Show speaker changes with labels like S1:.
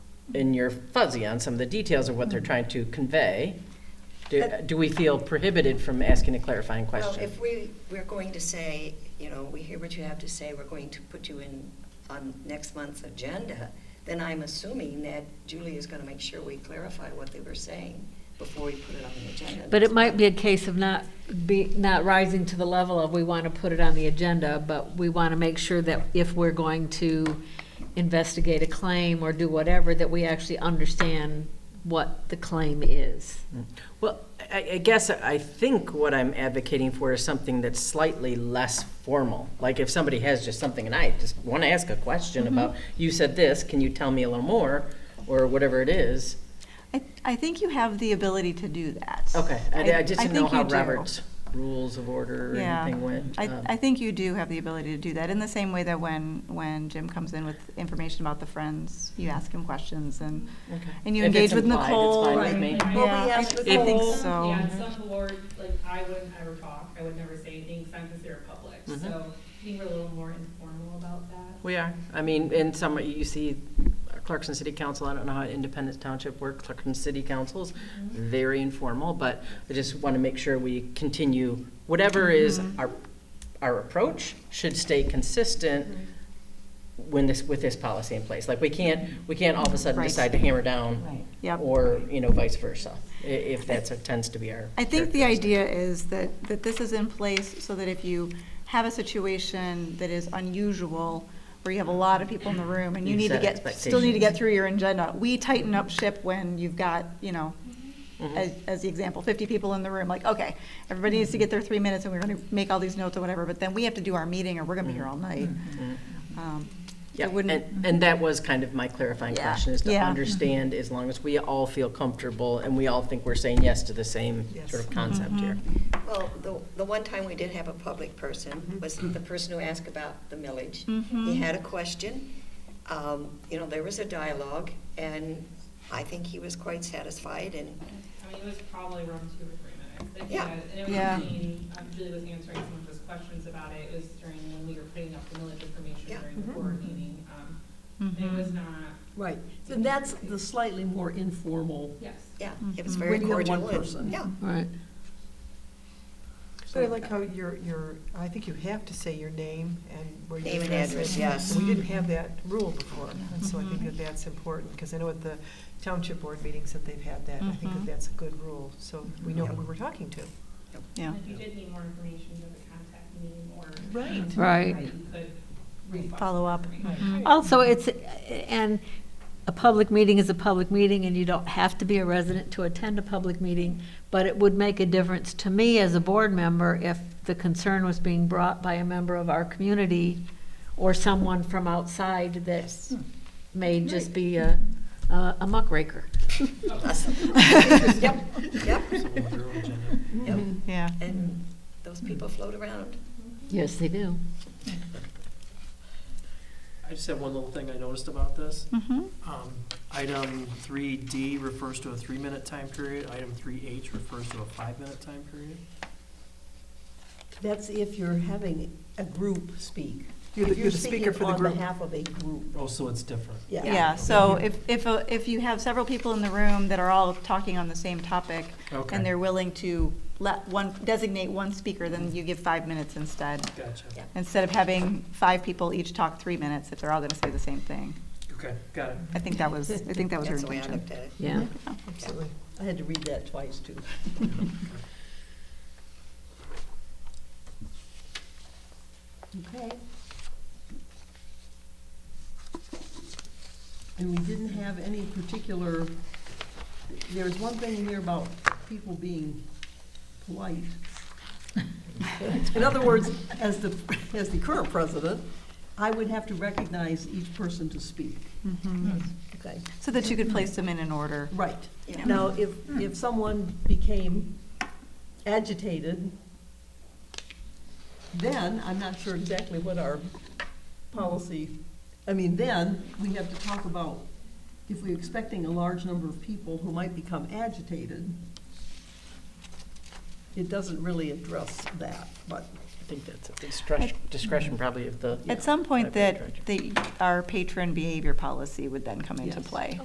S1: and you're fuzzy on some of the details of what they're trying to convey, do,
S2: But-
S1: do we feel prohibited from asking a clarifying
S2: Well,
S1: question?
S2: if we, we're going to say, you know, we hear what you have to say, we're going to put you in on next month's agenda, then I'm assuming that Julie is gonna make sure we clarify what they were saying before we put it on the agenda.
S3: But it might be a case of not be, not rising to the level of we want to put it on the agenda, but we want to make sure that if we're going to investigate a claim or do whatever, that we actually understand what the claim is.
S1: Well, I, I guess I think what I'm advocating for is something that's slightly less formal. Like if somebody has just something and I just want to ask a question about, you said this, can you tell me a little more? Or whatever it is.
S4: I, I think you have the ability to do that.
S1: Okay, I, I just didn't know
S4: think
S1: how
S4: you do.
S1: Robert's rules of order or
S4: Yeah.
S1: anything went.
S4: I,
S1: Um,
S4: I think you do have the ability to do that, in the same way that when, when Jim comes in with information about the Friends, you ask him questions and,
S1: okay.
S4: and you
S1: If it's
S4: engage with
S1: implied, it's
S4: Nicole.
S1: fine with
S4: and-
S2: me. Well, we
S4: Yeah,
S2: asked
S4: I
S2: Nicole.
S4: think
S2: Well,
S4: so.
S5: Yeah, some board, like, I wouldn't ever talk, I would never say anything, because I'm considered public,
S1: Mhm.
S5: so I think we're a little more informal about that.
S1: We are. I mean, in some, you see Clarkson City Council, I don't know how Independence Township works, Clarkson City Councils,
S4: Mm-hmm.
S1: very informal, but I just want to make sure we continue, whatever is
S4: Mm-hmm.
S1: our, our approach should stay consistent when this, with this policy in place. Like, we can't, we can't all of a sudden
S4: Right.
S1: decide to hammer down.
S4: Yep.
S1: Or, you know, vice versa, i- if that's, what tends to be our.
S4: I think the
S1: characteristic.
S4: idea is that, that this is in place so that if you have a situation that is unusual, where you have a lot of people in the room and you
S1: You
S4: need to
S1: set
S4: get, still need to
S1: expectations.
S4: get through your agenda, we tighten up ship when you've got, you know,
S1: Mm-hmm.
S4: as, as the example, fifty people in the room, like, okay, everybody needs to get their three minutes and we're gonna make all these notes or whatever, but then we have to do our meeting or we're gonna be here all night.
S1: Mm-hmm.
S4: Um,
S1: Yeah,
S4: It wouldn't,
S1: and, and that was kind of my clarifying
S4: Yeah.
S1: question, is to
S4: Yeah.
S1: understand, as long as we all feel comfortable and we all think we're saying yes to the same sort of concept
S4: Mm-hmm.
S1: here.
S2: Well, the, the one time we did have a public
S6: Mm-hmm.
S2: person was the person who asked about the millage. He had a question, um, you know, there was a dialogue, and I think he was quite satisfied, and
S5: I mean, it was probably around two or three minutes. that he
S2: Yeah.
S5: had, And it
S4: Yeah.
S5: was between, um, Julie was answering some of his questions about it, it was during when we were putting up the millage
S2: Yeah.
S5: information during
S4: Mm-hmm.
S5: the board meeting. um, and It was not,
S6: Right, and that's the slightly more informal.
S5: yes.
S2: yeah, it was very
S6: Mm-hmm. When you have
S2: cordial.
S6: one
S2: and-
S6: person.
S2: Yeah.
S3: Right.
S7: But I
S6: uh,
S7: like how your, your, I think you have to say your name and where you're
S2: Name
S7: from.
S2: and address, yes.
S7: We didn't have that rule before, and so I
S6: Mm-hmm.
S7: think that that's important, because I know at the township board meetings that they've had that, I
S6: Mm-hmm.
S7: think that
S4: Mhm.
S7: that's a good rule, so we know who
S2: Yep.
S7: we're talking to.
S4: yeah.
S5: And If you did need more information, you would contact me or.
S7: Right.
S3: Right.
S5: You could request
S4: Follow up.
S5: information.
S3: Also, it's, and a public meeting is a public meeting, and you don't have to be a resident to attend a public meeting, but it would make a difference to me as a board member if the concern was being brought by a member of our community or someone from outside that may just be a, a a muckraker.
S2: Yep, yep, yep.
S4: Yeah.
S2: And those people float around.
S3: Yes, they do.
S8: I just have one little thing I noticed about this.
S4: Mm-hmm.
S8: Um, Item three D refers to a three-minute time period, item three H refers to a five-minute time period.
S6: That's if you're having a group speak.
S7: You're the-
S6: If
S7: you're the speaker for the
S6: On
S7: group.
S6: behalf of a group,
S8: Oh, so it's different.
S6: yeah.
S4: Yeah, so if, if, a- if you have several people in the room that are all talking on the same topic, and
S8: Okay,
S4: they're willing to let one, designate one speaker, then you give five minutes instead.
S8: gotcha.
S2: Yeah.
S4: Instead of having five people each talk three minutes, if they're all gonna say the same thing.
S8: Okay, got it.
S4: I think that was, I think that was her
S2: That's the way I
S4: intention.
S2: looked at it.
S3: Yeah.
S7: Absolutely.
S6: I had to read that twice, too. Okay. And we didn't have any particular, there was one thing in here about people being polite. In other words, as the, as the current president, I would have to recognize each person to speak. Okay.
S4: Mm-hmm. So that you could place them in an order.
S6: Right.
S2: Yeah.
S6: Now, if, if someone became agitated, then I'm not sure exactly what our policy, I mean, then we have to talk about if we're expecting a large number of people who might become agitated, it doesn't really address that, but
S1: I think that's a discretion, discretion probably of the.
S4: At some point
S1: Library
S4: that,
S1: director.
S4: the, our patron behavior policy would then come into
S6: Yes.
S4: play.